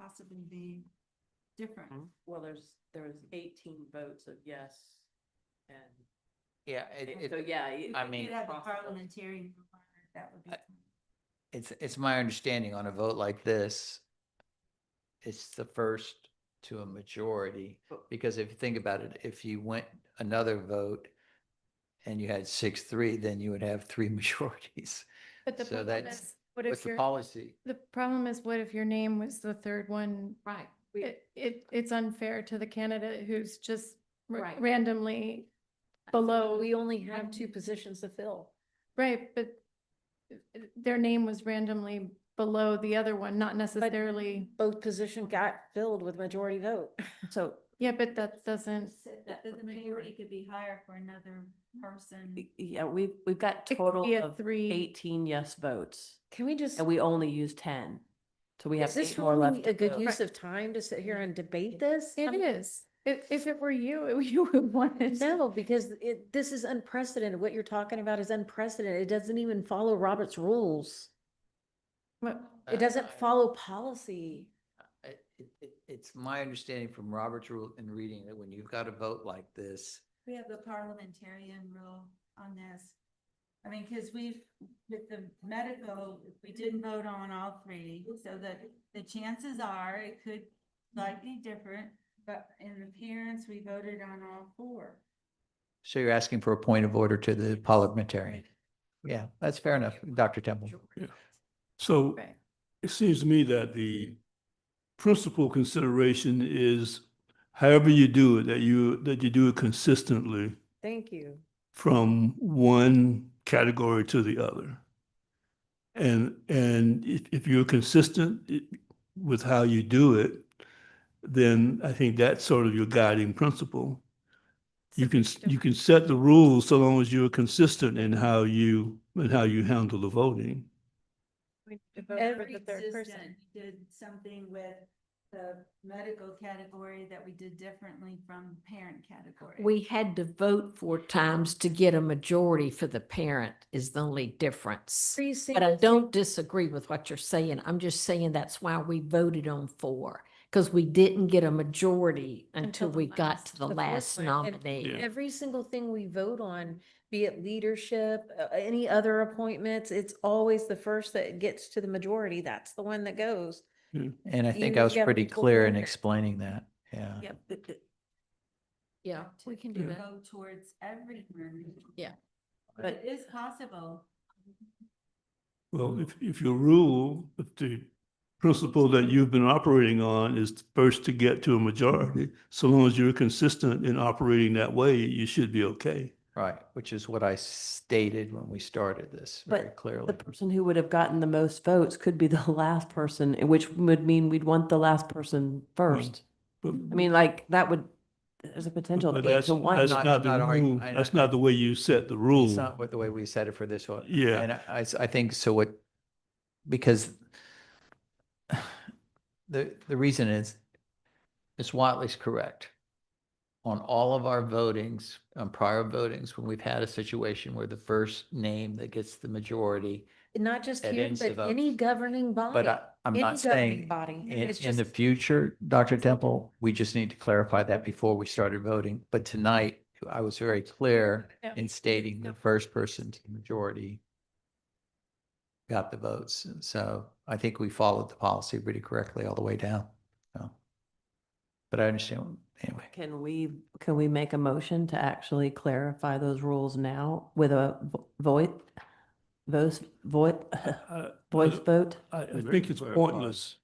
possibly be different? Mm-hmm. Well, there's, there was eighteen votes of yes. And Yeah, it, so, it, yeah. it- I it mean- You'd have a possible. parliamentarian, requirement, that would be. I- it's, it's my understanding on a vote like this, it's the first to a majority. But- Because if you think about it, if you went another vote and you had six, three, then you would have three majorities But the So problem that's- is, what with if the your, policy. the problem is, what if your name was the third one? Right. We- It, it, it's unfair to the candidate who's just ra- Right. randomly Below, below, we only have two positions to fill. right, but their name was randomly below the other one, not necessarily, Both position got filled with majority vote. So yeah, but that doesn't, Said that The majority could be higher for another person. Y- Yeah, we've, we've got it could total be a of three. eighteen yes votes can we just, and we only use ten. So we have is this eight more left. really a to good go. use of time to sit here and debate this? I It mean, is. If, if it were you, it- you would want it. No, because it, this is unprecedented. What you're talking about is unprecedented. It doesn't even follow Robert's rules. But- I- It doesn't I- follow policy. I- it- it- It's my understanding from Robert's rule and reading that when you've got a vote like this, We have the parliamentarian rule on this. I mean, because we've, with the medical, we didn't vote on all three, so that the chances are it could slightly different, but in appearance, we voted on all four. so you're asking for a point of order to the parliamentarian. Yeah, that's fair enough, Dr. Temple. So Right. it seems to me that the principal consideration is however you do it, that you, that you do it consistently Thank you. from one category to the other. And, and if, if you're consistent i- with how you do it, then I think that's sort of your guiding principle. You can, s- you can set the rules so long as you're consistent in how you, in how you handle the voting. Already existent, we Did something with the medical category that we did differently from parent category. We had to vote four times to get a majority for the parent is the only difference. Three But I uh, singles. don't disagree with what you're saying. I'm just saying that's why we voted on four. Because we didn't get a majority Until until the we got last- to the the fourth last one. And- nominee. Every single thing we vote on, be it leadership, uh, any other appointments, it's always the first that gets to the majority. That's the one that goes. And I think You I was get pretty equal clear in footing. explaining that, yeah. Yeah, but the- Yeah, To we can do that. Go towards everyone. Yeah. But it is possible. Well, if, if your rule, if the principle that you've been operating on is first to get to a majority, so long as you're consistent in operating that way, you should be okay. Right, which is what I stated when we started this But very clearly. the person who would have gotten the most votes could be the last person, and which would mean we'd want the last person first. Mm-hmm. I But- mean, like, that would, there's a potential. But eight that's, to one. that's Not- not the not arguing. rule, I- that's not the way you set the It's rule. not what the way we said it for this one. Yeah. And I- I, s- I think so what, because the, the reason is, Ms. Watley's correct. On all of our votings, on prior votings, when we've had a situation where the first name that gets the majority, Not just It here, ends the but any votes. governing body. but I, I'm any not governing saying Body. in, It's in the just- future, Dr. Temple, we just need to clarify that before we started voting. But tonight, I was very clear Yeah. in stating the Yeah. first person to the majority got the votes. And so I think we followed the policy pretty correctly all the way down. So, But I understand, anyway. Can we, can we make a motion to actually clarify those rules now with a vo- voice, voice, voice, I- voice vote? I, I Very think it's clear policy. pointless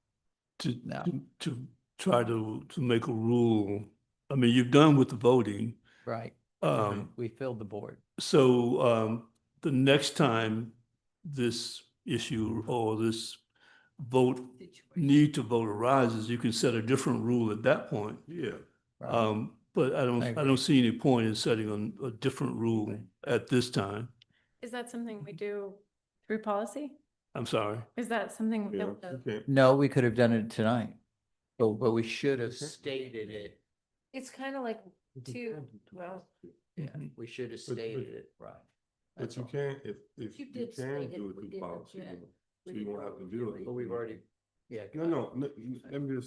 to, No. to- to try to, to make a rule. I mean, you've done with the voting. Right. Um, We filled the board. So um, the next time this issue or this vote, need to vote arises, you can set a different rule at that point. Yeah. right. Um, But I don't, I I agree. don't see any point in setting an- a different rule at this time. Is that something we do through policy? I'm sorry. Is that something yeah, that you can't- No, we could have done it tonight, but, but we should have Okay. stated it. It's kind of like two, well, Yeah, we should have But- but- stated it, right. But That's you all. can't, if, if You you did can state it, do we it through didn't policy, object. so you won't have to deal with it. But we've already, yeah. No, no, no, you- let me just